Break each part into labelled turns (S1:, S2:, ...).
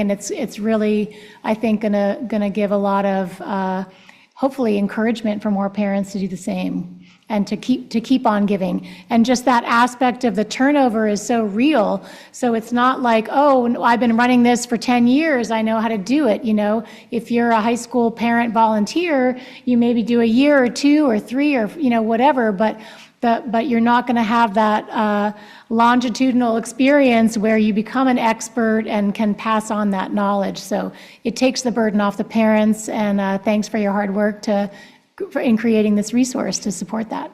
S1: And it's, it's really, I think, gonna, gonna give a lot of, uh, hopefully encouragement for more parents to do the same and to keep, to keep on giving. And just that aspect of the turnover is so real. So it's not like, oh, no, I've been running this for 10 years, I know how to do it, you know? If you're a high school parent volunteer, you maybe do a year or two or three or, you know, whatever, but but, but you're not going to have that uh, longitudinal experience where you become an expert and can pass on that knowledge. So it takes the burden off the parents, and uh, thanks for your hard work to, for, in creating this resource to support that.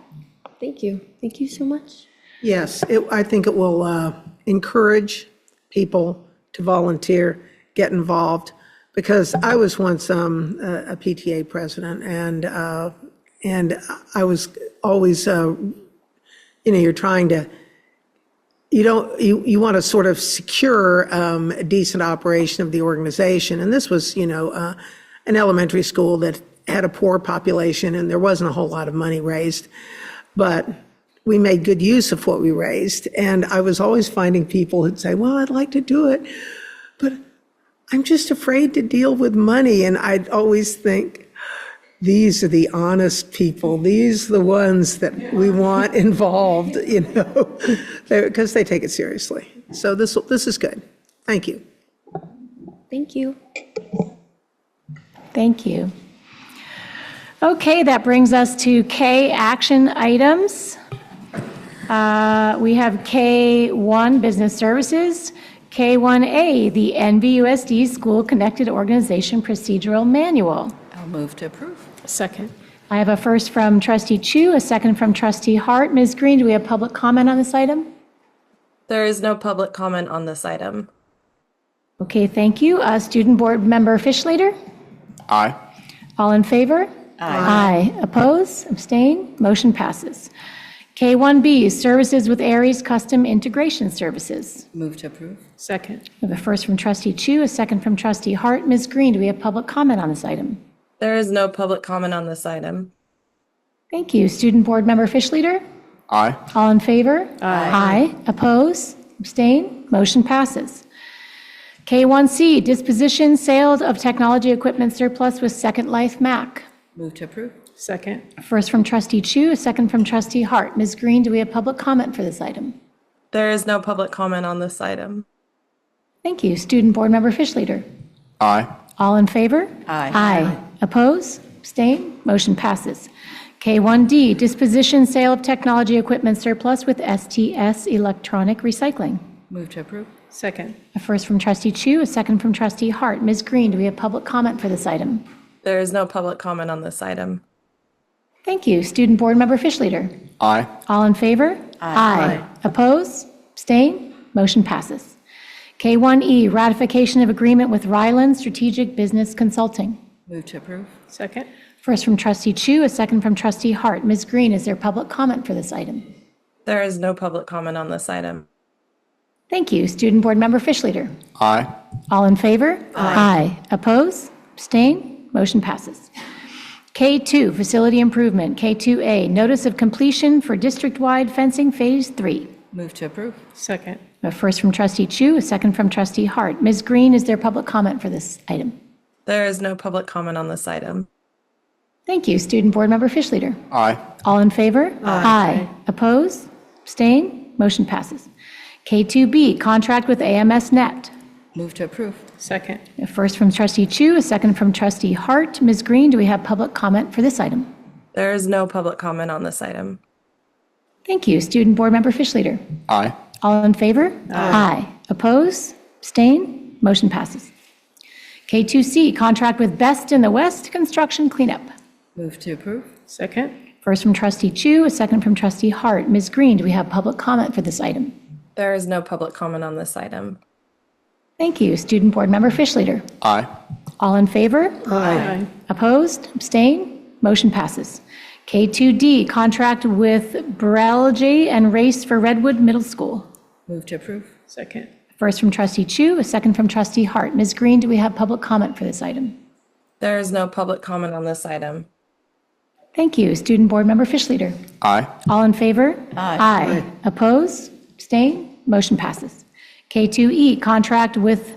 S2: Thank you. Thank you so much.
S3: Yes, it, I think it will uh, encourage people to volunteer, get involved, because I was once um, a a PTA president, and, uh, and I was always, uh, you know, you're trying to, you don't, you, you want to sort of secure um, a decent operation of the organization, and this was, you know, uh, an elementary school that had a poor population, and there wasn't a whole lot of money raised, but we made good use of what we raised, and I was always finding people who'd say, well, I'd like to do it, but I'm just afraid to deal with money, and I'd always think, these are the honest people. These are the ones that we want involved, you know, because they take it seriously. So this, this is good. Thank you.
S2: Thank you.
S1: Thank you. Okay, that brings us to K, action items. Uh, We have K1, business services, K1A, the NBUSD School Connected Organization Procedural Manual.
S4: I'll move to approve.
S5: Second.
S1: I have a first from trustee Chu, a second from trustee Hart. Ms. Green, do we have public comment on this item?
S6: There is no public comment on this item.
S1: Okay, thank you. Uh, Student Board Member Fish Leader?
S7: Aye.
S1: All in favor? Aye. Oppose? Abstain? Motion passes. K1B, Services with Aries Custom Integration Services.
S4: Move to approve.
S5: Second.
S1: We have a first from trustee Chu, a second from trustee Hart. Ms. Green, do we have public comment on this item?
S6: There is no public comment on this item.
S1: Thank you. Student Board Member Fish Leader?
S7: Aye.
S1: All in favor? Aye. Oppose? Abstain? Motion passes. K1C, disposition, sales of technology equipment surplus with Second Life MAC.
S4: Move to approve.
S5: Second.
S1: First from trustee Chu, a second from trustee Hart. Ms. Green, do we have public comment for this item?
S6: There is no public comment on this item.
S1: Thank you. Student Board Member Fish Leader?
S7: Aye.
S1: All in favor?
S4: Aye.
S1: Aye. Oppose? Abstain? Motion passes. K1D, disposition, sale of technology equipment surplus with STS Electronic Recycling.
S4: Move to approve.
S5: Second.
S1: A first from trustee Chu, a second from trustee Hart. Ms. Green, do we have public comment for this item?
S6: There is no public comment on this item.
S1: Thank you. Student Board Member Fish Leader?
S7: Aye.
S1: All in favor? Aye. Oppose? Abstain? Motion passes. K1E, ratification of agreement with Ryland Strategic Business Consulting.
S4: Move to approve.
S5: Second.
S1: First from trustee Chu, a second from trustee Hart. Ms. Green, is there public comment for this item?
S6: There is no public comment on this item.
S1: Thank you. Student Board Member Fish Leader?
S7: Aye.
S1: All in favor? Aye. Oppose? Abstain? Motion passes. K2, facility improvement. K2A, notice of completion for district-wide fencing Phase 3.
S4: Move to approve.
S5: Second.
S1: A first from trustee Chu, a second from trustee Hart. Ms. Green, is there public comment for this item?
S6: There is no public comment on this item.
S1: Thank you. Student Board Member Fish Leader?
S7: Aye.
S1: All in favor? Aye. Oppose? Abstain? Motion passes. K2B, contract with AMS Net.
S4: Move to approve.
S5: Second.
S1: A first from trustee Chu, a second from trustee Hart. Ms. Green, do we have public comment for this item?
S6: There is no public comment on this item.
S1: Thank you. Student Board Member Fish Leader?
S7: Aye.
S1: All in favor? Aye. Oppose? Abstain? Motion passes. K2C, contract with Best in the West Construction Cleanup.
S4: Move to approve.
S5: Second.
S1: First from trustee Chu, a second from trustee Hart. Ms. Green, do we have public comment for this item?
S6: There is no public comment on this item.
S1: Thank you. Student Board Member Fish Leader?
S7: Aye.
S1: All in favor?
S5: Aye.
S1: Opposed? Abstain? Motion passes. K2D, contract with Brelgy and Race for Redwood Middle School.
S4: Move to approve.
S5: Second.
S1: First from trustee Chu, a second from trustee Hart. Ms. Green, do we have public comment for this item?
S6: There is no public comment on this item.
S1: Thank you. Student Board Member Fish Leader?
S7: Aye.
S1: All in favor? Aye. Opposed? Abstain? Motion passes. K2E, E, contract with uh,